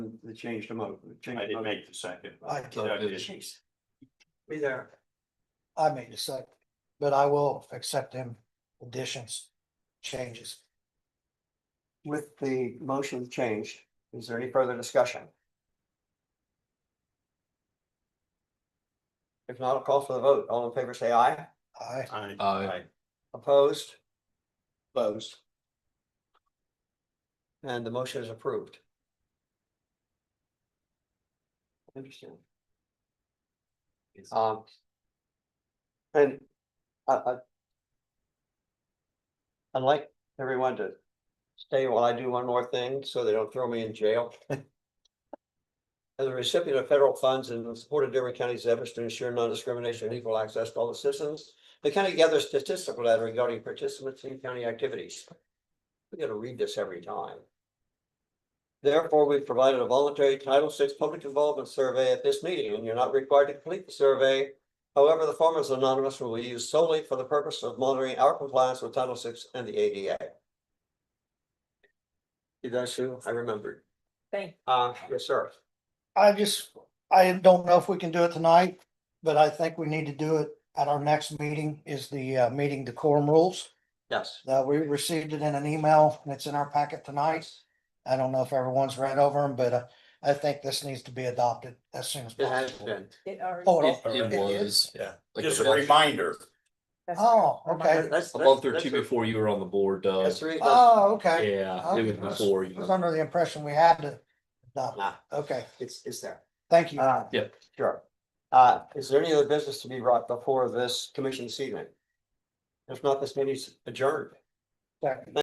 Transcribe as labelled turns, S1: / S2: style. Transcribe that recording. S1: They changed them up.
S2: I didn't make the second.
S3: I
S2: Yeah, I
S3: can't,
S2: did.
S3: jeez,
S1: Be there.
S3: I made a second, but I will accept them additions, changes.
S1: With the motion changed, is there any further discussion? If not, I'll call for the vote. All in favor, say aye.
S3: I,
S2: Aye.
S4: Aye.
S1: Opposed? Opposed. And the motion is approved. Interesting. Um. And I, I. I'd like everyone to stay while I do one more thing, so they don't throw me in jail. As a recipient of federal funds and in support of Dearborn County's efforts to ensure non-discrimination and equal access to all the citizens, the county gathers statistical data regarding participants in county activities. We gotta read this every time. Therefore, we've provided a voluntary Title VI public involvement survey at this meeting, and you're not required to complete the survey. However, the form is anonymous and will be used solely for the purpose of monitoring our compliance with Title VI and the ADA. Did I sue? I remembered.
S5: Thank,
S1: Uh, yes, sir.
S3: I just, I don't know if we can do it tonight, but I think we need to do it at our next meeting is the uh, meeting decorum rules.
S1: Yes.
S3: Uh, we received it in an email and it's in our packet tonight. I don't know if everyone's read over them, but uh, I think this needs to be adopted as soon as
S1: It has
S3: possible.
S1: been.
S5: it already.
S3: Oh,
S4: It it
S3: it- it
S4: was.
S2: Yeah.
S4: like
S2: Just a
S4: above-
S2: reminder.
S5: That's
S3: Oh,
S5: correct.
S3: okay.
S1: That's-
S4: Above
S1: that's-
S4: thirteen before you were on the board, Doug.
S1: That's the reason-
S3: Oh, okay.
S4: Yeah, it was
S3: Okay.
S4: before
S3: I was
S4: you.
S3: under the impression we had to adopt. it.
S1: Nah,
S3: Okay,
S1: It's, it's there.
S3: thank you.
S1: Uh,
S4: Yep.
S1: Sure. Uh, is there any other business to be brought before this commission this evening? If not, this meeting is adjourned.
S3: Second.